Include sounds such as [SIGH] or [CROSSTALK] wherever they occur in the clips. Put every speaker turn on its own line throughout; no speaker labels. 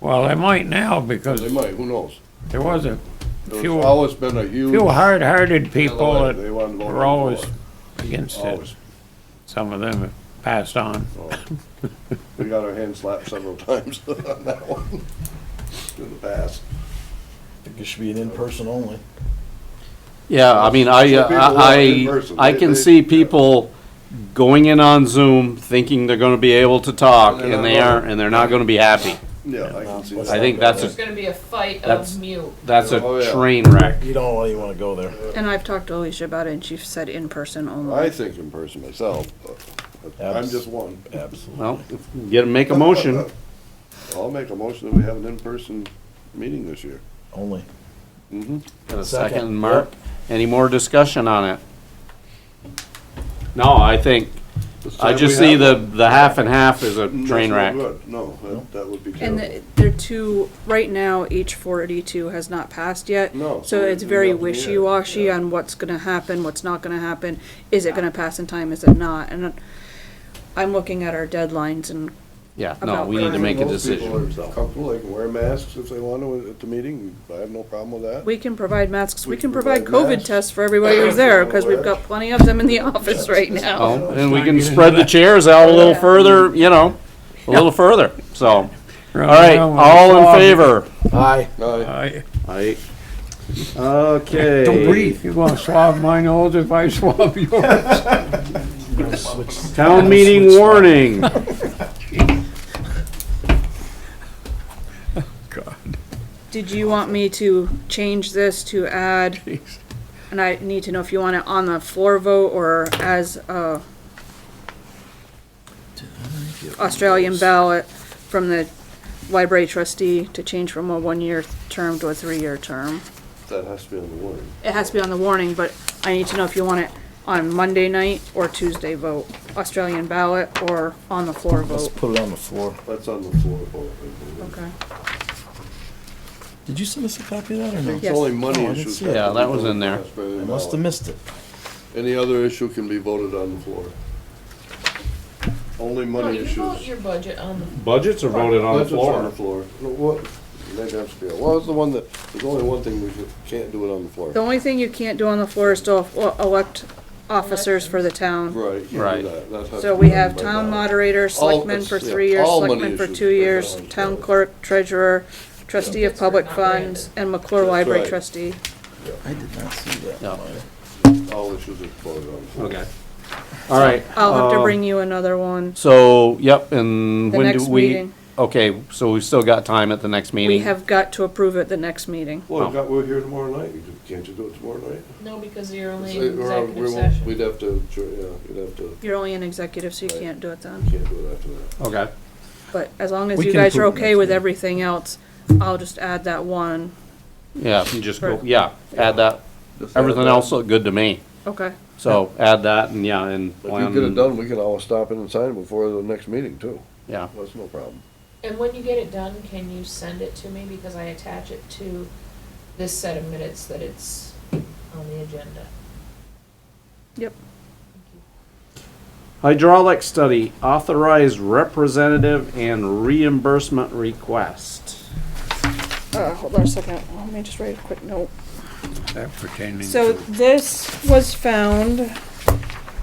Well, they might now because
They might, who knows?
there was a
There's
few,
always been a huge.
few hard-hearted people
Allied,
that
they wanted to go
were always
overboard,
against it.
Always.
Some of them have passed on.
So, We got our hand slapped several [LAUGHS] times on that one [LAUGHS] in the past.
think it should be an in-person only.
Yeah, I mean, I,
So people want it in
I,
person.
I
They-
can
they-
see people going in on Zoom thinking they're gonna be able to talk,
And they're
and they
not.
aren't, and they're not gonna be happy.
Yeah, I can see
I
that.
I think that's
There's
a,
gonna be a fight
That's-
of mute.
that's
Oh,
a
yeah.
train wreck.
You don't really wanna go there.
And I've talked to Alicia about it, and she said in person
I
only.
think in person myself, but I'm just one.
Absolutely.
Well, get, make a motion.
I'll make a motion that we have an in-person meeting this year.
Only.
Got a
Second.
second, Mark? Any more discussion on it? No, I think,
This
I
time
just
we
see
have
the,
one.
the half and half is a
That's
train
no
wreck.
good. No, that, that would be
And
terrible.
the- they're two, right now, H forty-two has not passed yet.
No, so
So it's
it's
very
up in the air,
wishy-washy
yeah.
on what's gonna happen, what's not gonna happen, is it gonna pass in time, is it not? And I'm looking at our deadlines and
Yeah, no,
About
we need to
time.
make a
Most people
decision.
are Comfortable, they can wear masks if they want to at the meeting. I have no problem with that.
we can provide masks, we
We
can
can provide
provide COVID
masks.
tests for everybody who's there, cause we've got plenty of them in the [LAUGHS] office right now.
Oh, and we can spread the chairs out a little further, you know, a little further, so. All right, all in favor?
Aye.
No,
I-
Aye. Okay.
Don't breathe. You gonna swab my nose if I swab yours?
[LAUGHS] Town meeting warning.
Did you want me to change this to add? And I need to know if you want it on the floor vote or as a Australian ballot from the library trustee to change from a one-year term to a three-year term.
that has to be on the warning.
It has to be on the warning, but I need to know if you want it on Monday night or Tuesday vote, Australian ballot or on the floor
Let's
vote.
put it on the floor.
That's on the floor. vote, I believe.
Okay.
Did you send us a copy of that or no?
It's only money
Oh, I didn't
issues.
see
have
it. Yeah,
to be
that was
voted
in there.
on, it's better than
I must have
ballot.
missed it.
Any other issue can be voted on the floor. Only
No,
money
you
issues.
vote your budget on the
Budgets are voted on the
Budget's On the
floor.
floor. No, What, maybe I'm scared. What was the one that, there's only one thing we should- can't do it on the
The
floor.
only thing you can't do on the floor is still e- elect officers for the town.
Right. you can't do
Right.
that. That has
So
to
we
be done
have
by
town
ballot.
moderator, selectmen
it's-
for
yeah,
three years,
all money
selectmen for
issues
two
are
years,
balanced
town
out.
clerk, treasurer, trustee of
Yeah.
public
Not branded.
funds, and McClure Library
right.
trustee.
I did not see that.
Yeah.
All issues are voted on. the floor.
Okay. All right,
I'll have to
Um,
bring you another one
so, yep, and
the
when do
next
we?
meeting.
Okay, so we've still got time at the next
We
meeting?
have got to approve it the next meeting.
Well, we've got, we're here tomorrow night. You do- Can't you do it tomorrow night?
No, because you're only
Say,
in
we're out- we
executive
won't-
session.
We'd have to, sure, yeah, we'd have to,
You're only an executive, so you
Right.
can't do it then.
can't do it after that.
Okay,
But as long as
We
you
can
guys are
approve it
okay
next
with
meeting.
everything else, I'll just add that one.
yeah, you just go,
Right.
yeah, add that.
Just add
Everything
that.
else looked good to me,
Okay.
so add that and, yeah, and.
If you get it done, we can always stop in and sign it before the next meeting too.
Yeah,
That's no problem.
And when you get it done, can you send it to me, because I attach it to this set of minutes that it's on the agenda.
Yep.
Hydraulic study, authorized representative and reimbursement request.
Uh, hold on a second. Let me just write a quick note.
That pertaining
So
to-
this was found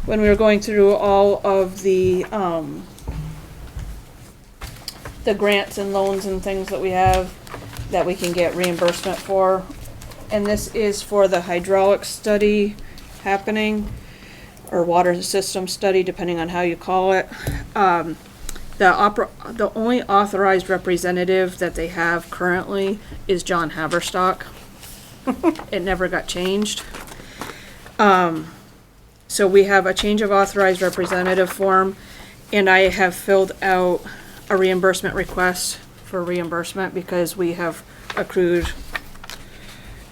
when we were going through all of the, um, the grants and loans and things that we have that we can get reimbursement for. And this is for the hydraulic study happening, or water system study, depending on how you call it. Um, the opera, the only authorized representative that they have currently is John Haverstock it never got changed. Um, so we have a change of authorized representative form, and I have filled out a reimbursement request for reimbursement because we have accrued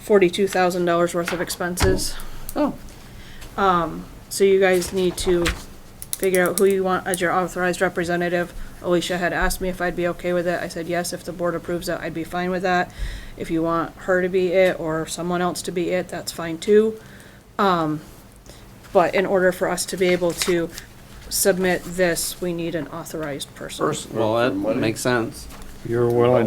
forty-two thousand dollars worth of expenses. Um,
Oh.
So you guys need to figure out who you want as your authorized representative. Alicia had asked me if I'd be okay with it. I said, yes, if the board approves it, I'd be fine with that. If you want her to be it or someone else to be it, that's fine too. Um, but in order for us to be able to submit this, we need an authorized person.
First, well, that
money.
makes sense.
You're willing